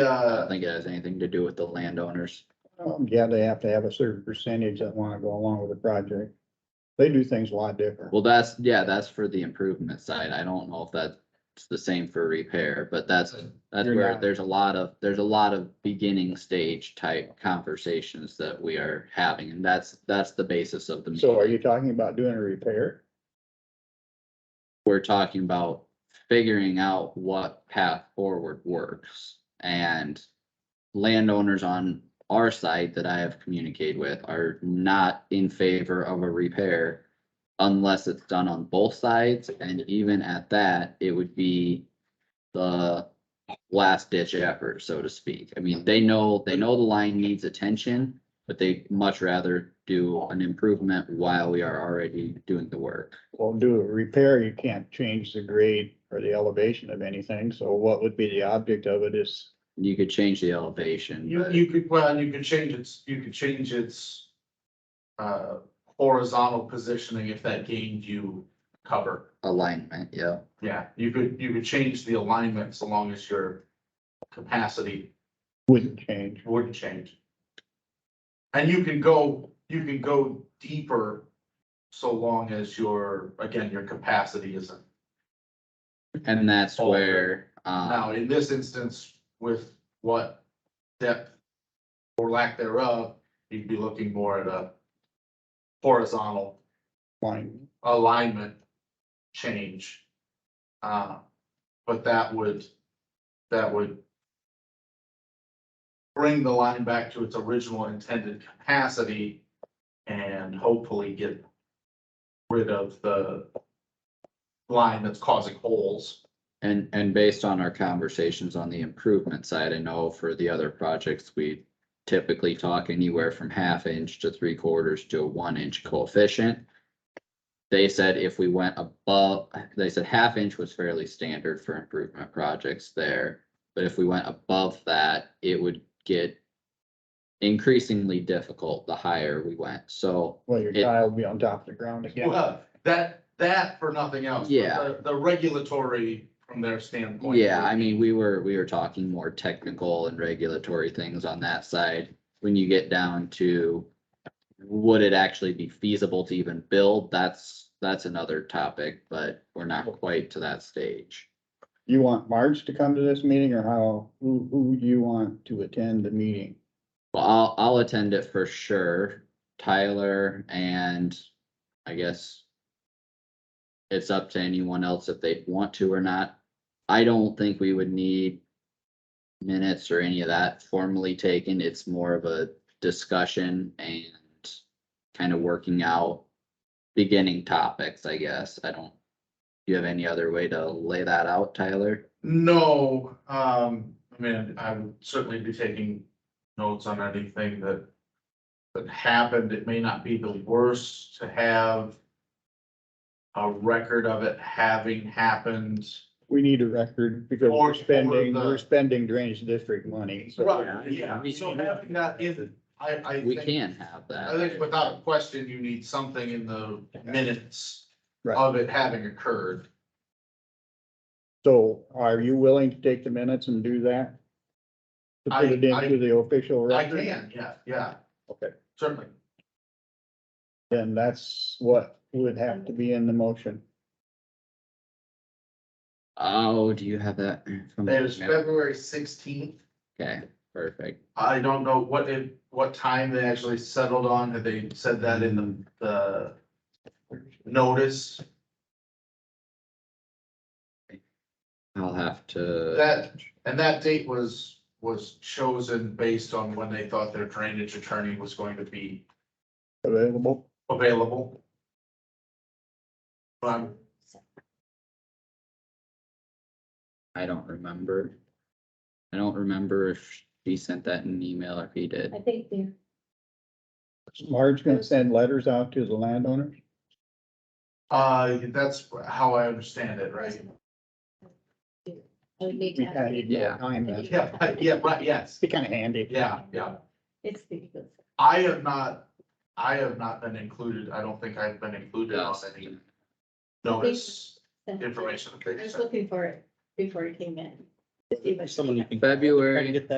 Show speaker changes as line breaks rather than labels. I
uh,
don't think it has anything to do with the landowners.
Um, Yeah, they have to have a certain percentage that wanna go along with the project. They do things a lot different.
Well, that's, yeah, that's for the improvement side. I don't know if that's the same for repair, but that's, that's
You're
where
not-
there's a lot of, there's a lot of beginning stage type conversations that we are having, and that's, that's the basis of the.
So are
meeting.
you talking about doing a repair?
We're talking about figuring out what path forward works and landowners on our side that I have communicated with are not in favor of a repair unless it's done on both sides, and even at that, it would be the last ditch effort, so to speak. I mean, they know, they know the line needs attention, but they much rather do an improvement while we are already doing the work.
Well, do a repair, you can't change the grade or the elevation of anything, so what would be the object of it is,
You could change the elevation,
you,
but
you could, well, you could change its, you could change its uh, horizontal positioning if that gained you cover.
alignment, yeah.
Yeah, you could, you could change the alignment so long as your capacity
wouldn't change.
wouldn't change. And you can go, you can go deeper so long as your, again, your capacity isn't.
And that's
All
where,
Oh, Now,
um,
in this instance, with what depth or lack thereof, you'd be looking more at a horizontal
Fine.
alignment change. Uh, but that would, that would bring the line back to its original intended capacity and hopefully get rid of the line that's causing holes.
and, and based on our conversations on the improvement side, I know for the other projects, we typically talk anywhere from half inch to three quarters to a one inch coefficient. They said if we went above, they said half inch was fairly standard for improvement projects there. But if we went above that, it would get increasingly difficult the higher we went. So
Well, your
It-
tile will be on top of the ground again.
Well, that, that for nothing else. but
Yeah.
the- The regulatory from their standpoint.
Yeah, I mean, we were, we were talking more technical and regulatory things on that side. When you get down to would it actually be feasible to even build, that's, that's another topic, but we're not quite to that stage.
You want Marge to come to this meeting or how, who, who do you want to attend the meeting?
Well, I'll, I'll attend it for sure, Tyler, and I guess it's up to anyone else if they want to or not. I don't think we would need minutes or any of that formally taken. It's more of a discussion and kind of working out beginning topics, I guess. I don't, do you have any other way to lay that out, Tyler?
No, um, I mean, I would certainly be taking notes on anything that. That happened, it may not be the worst to have. A record of it having happened.
We need a record because
Or-
we're
or
spending,
the-
we're spending drainage district money, so.
Right, yeah.
So having that in, I, I
We
think-
can have
I
that.
think without question, you need something in the minutes
Right.
of it having occurred.
So are you willing to take the minutes and do that? To
I-
put it
I-
into the official
I
record?
can, yeah, yeah,
Okay,
certainly.
then that's what would have to be in the motion.
Oh, do you have that? from-
It was February sixteenth.
Okay, perfect.
I don't know what it, what time they actually settled on. Had they said that in the, the notice?
I'll have to.
That, and that date was, was chosen based on when they thought their drainage attorney was going to be
Available?
available. But I'm-
I don't remember. I don't remember if she sent that in an email or if he did.
I think the
Marge gonna send letters out to the landowner?
uh, that's how I understand it, right?
I would need
We
to
kinda
have.
need more
Yeah.
time. that's-
Yeah, right, yeah, right, yes,
Be kinda handy.
yeah, yeah.
It's the,
I have not, I have not been included. I don't think I've been included on any notice information. that
I
they
was
sent.
looking for it before it came in.
It's even-
Someone you can.
February.
Try to Get that